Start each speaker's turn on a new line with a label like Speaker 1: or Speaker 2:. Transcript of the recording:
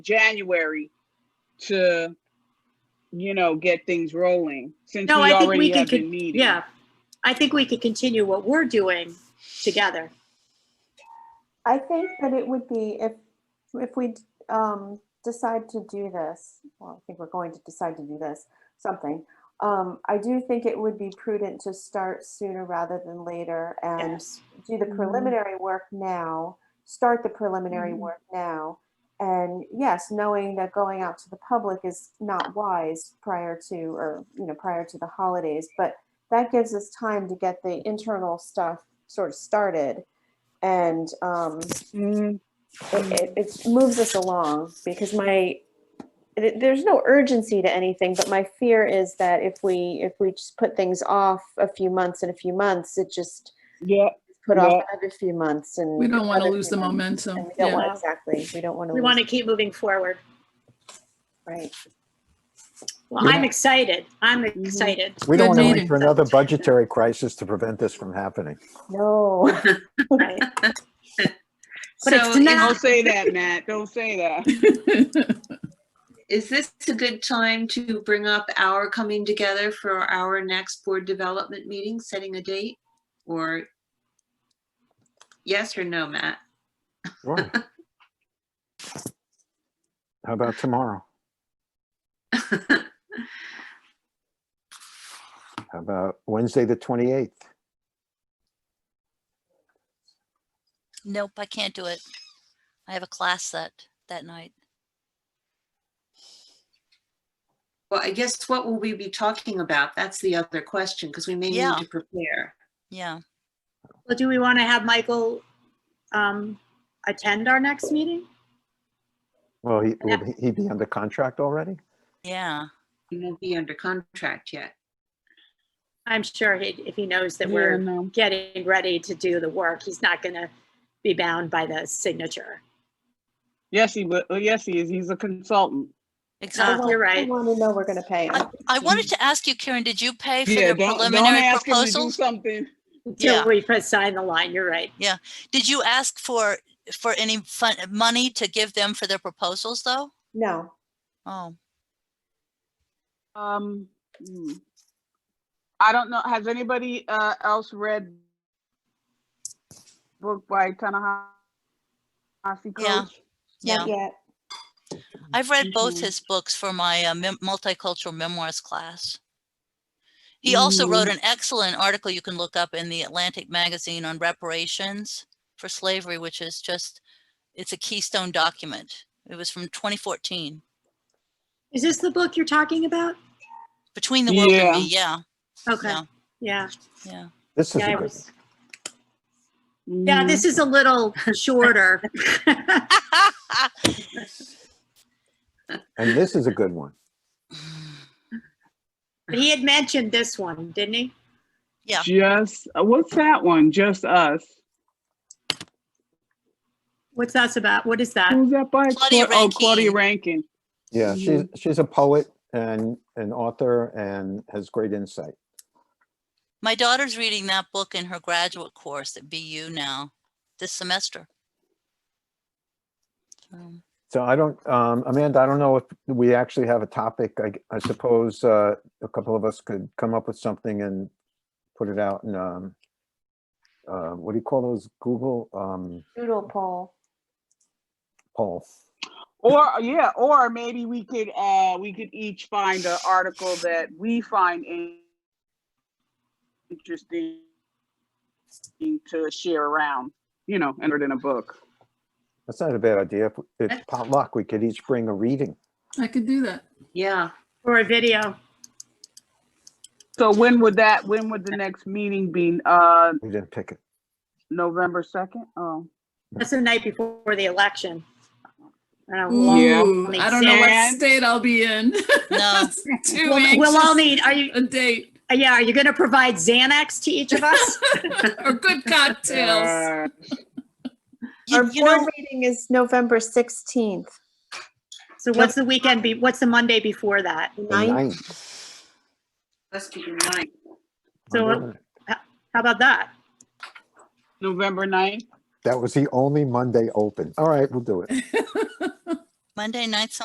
Speaker 1: January to, you know, get things rolling since
Speaker 2: No,
Speaker 1: we
Speaker 2: I think
Speaker 1: already
Speaker 2: we
Speaker 1: have
Speaker 2: could,
Speaker 1: been meeting.
Speaker 2: yeah. I think we could continue what we're doing together.
Speaker 3: I think that it would be if, if we um, decide to do this, well, I think we're going to decide to do this, something. Um, I do think it would be prudent to start sooner rather than later and
Speaker 2: Yes.
Speaker 3: do the
Speaker 2: Mhm.
Speaker 3: preliminary work now, start the preliminary
Speaker 2: Mhm.
Speaker 3: work now. And yes, knowing that going out to the public is not wise prior to, or, you know, prior to the holidays, but that gives us time to get the internal stuff sort of started. And, um,
Speaker 1: Mhm.
Speaker 3: it, it, it moves us along because my th- there's no urgency to anything but my fear is that if we if we just put things off a few months and a few months it just
Speaker 1: Yeah,
Speaker 3: put
Speaker 1: Yeah.
Speaker 3: off another few months and
Speaker 4: We don't want to
Speaker 3: another
Speaker 4: lose the
Speaker 3: few months, and
Speaker 4: momentum.
Speaker 3: we don't
Speaker 4: Yeah.
Speaker 3: want exactly we don't want to
Speaker 2: We want to keep moving forward.
Speaker 3: right
Speaker 2: Well, I'm excited. I'm
Speaker 5: Mm-hmm.
Speaker 2: excited.
Speaker 5: We don't
Speaker 4: Good
Speaker 5: want to wait
Speaker 4: meeting.
Speaker 5: for another budgetary crisis to prevent this from happening.
Speaker 3: no
Speaker 2: Right. But it's
Speaker 6: So is-
Speaker 2: not-
Speaker 1: don't say that, Matt. Don't say that.
Speaker 6: is this a good time to bring up our coming together for our next board development meeting, setting a date? Or yes or no, Matt?
Speaker 5: Sure. How about tomorrow? How about Wednesday, the 28th?
Speaker 7: Nope, I can't do it. I have a class that, that night.
Speaker 6: Well, I guess what will we be talking about? That's the other question, because we may need
Speaker 7: Yeah.
Speaker 6: to prepare.
Speaker 7: Yeah.
Speaker 2: Well, do we want to have Michael um, attend our next meeting?
Speaker 5: Well, he, will he be under contract already?
Speaker 7: Yeah.
Speaker 6: We won't be under contract yet.
Speaker 2: I'm sure he, if he knows that
Speaker 1: Yeah,
Speaker 2: we're
Speaker 1: no.
Speaker 2: getting ready to do the work, he's not going to be bound by the signature.
Speaker 1: Yes, he will. Yes, he is. He's a consultant.
Speaker 3: I
Speaker 2: Uh,
Speaker 7: Exactly.
Speaker 3: want-
Speaker 2: you're
Speaker 3: i
Speaker 2: right.
Speaker 3: want to know we're going to pay 'em.
Speaker 7: I wanted to ask you, Karen, did you pay for
Speaker 1: Yeah,
Speaker 7: the
Speaker 1: don't, don't
Speaker 7: preliminary
Speaker 1: ask him to do
Speaker 7: proposal?
Speaker 1: something.
Speaker 2: Until
Speaker 7: Yeah.
Speaker 2: we put sign the line, you're right.
Speaker 7: Did you ask for, for any fun, money to give them for their proposals though?
Speaker 3: no
Speaker 7: Oh,
Speaker 1: Um, hmm. I don't know. Has anybody uh, else read book by Tanahashi
Speaker 7: Yeah.
Speaker 1: Coates?
Speaker 7: yeah.
Speaker 3: not yet
Speaker 7: I've read both
Speaker 1: Mhm.
Speaker 7: his books for my uh, mem- multicultural memoirs class. He also wrote an excellent article you can look up in the Atlantic magazine on reparations for slavery, which is just, it's a keystone document. It was from 2014,
Speaker 2: Is this the book you're talking about?
Speaker 7: Between the World
Speaker 1: Yeah.
Speaker 7: and Me, yeah.
Speaker 2: Okay,
Speaker 7: Yeah.
Speaker 2: yeah.
Speaker 7: Yeah.
Speaker 5: This is
Speaker 2: Yeah,
Speaker 5: a
Speaker 2: I
Speaker 5: good,
Speaker 2: was- yeah,
Speaker 1: Mhm.
Speaker 2: this is a little shorter.
Speaker 5: and this is a good one.
Speaker 2: But he had mentioned this one, didn't he?
Speaker 7: Yeah.
Speaker 1: Just uh, what's that one? Just us.
Speaker 2: What's that's about? What is that?
Speaker 1: Who's that by?
Speaker 7: Claudia
Speaker 1: Cla- Oh, Claudia
Speaker 7: Rankine.
Speaker 1: Rankin.
Speaker 5: Yeah, she's, she's a poet and an author and has great insight.
Speaker 7: My daughter's reading that book in her graduate course at BU now, this semester. So,
Speaker 5: So I don't, um, Amanda, I don't know if we actually have a topic. I, I suppose, uh, a couple of us could come up with something and put it out in, um, uh, what do you call those? Google, um,
Speaker 3: doodle poll
Speaker 5: poll.
Speaker 1: Or yeah, or maybe we could uh we could each find an article that we find in- interesting to share around, you know, and it in a book.
Speaker 5: That's not a bad idea. If- If potluck, we could each bring a reading.
Speaker 4: I could do that.
Speaker 6: Yeah,
Speaker 2: Or a video?
Speaker 1: So when would that when would the next meeting be? Uh
Speaker 5: We didn't pick it.
Speaker 1: November second? Oh.
Speaker 2: That's the night before the election. I don't know, we'll-
Speaker 1: Yeah.
Speaker 4: Ooh, I don't know what
Speaker 2: Sand.
Speaker 4: state I'll be in.
Speaker 7: No.
Speaker 4: Too
Speaker 2: We'll Oh. we'll all
Speaker 4: anxious.
Speaker 2: need, are you,
Speaker 4: A date
Speaker 2: uh, yeah, are you going to provide Xanax to each of us?
Speaker 4: or good cocktails.
Speaker 1: Uh,
Speaker 3: our
Speaker 7: You, you
Speaker 3: board
Speaker 7: know,
Speaker 3: meeting is november 16th
Speaker 2: So what's the weekend be, what's the Monday before that?
Speaker 3: the
Speaker 5: The
Speaker 3: ninth.
Speaker 5: ninth.
Speaker 6: must be the ninth.
Speaker 2: So
Speaker 5: Monday night.
Speaker 2: How about that?
Speaker 1: November ninth?
Speaker 5: That was the only Monday open. All right, we'll do it.
Speaker 7: Monday nights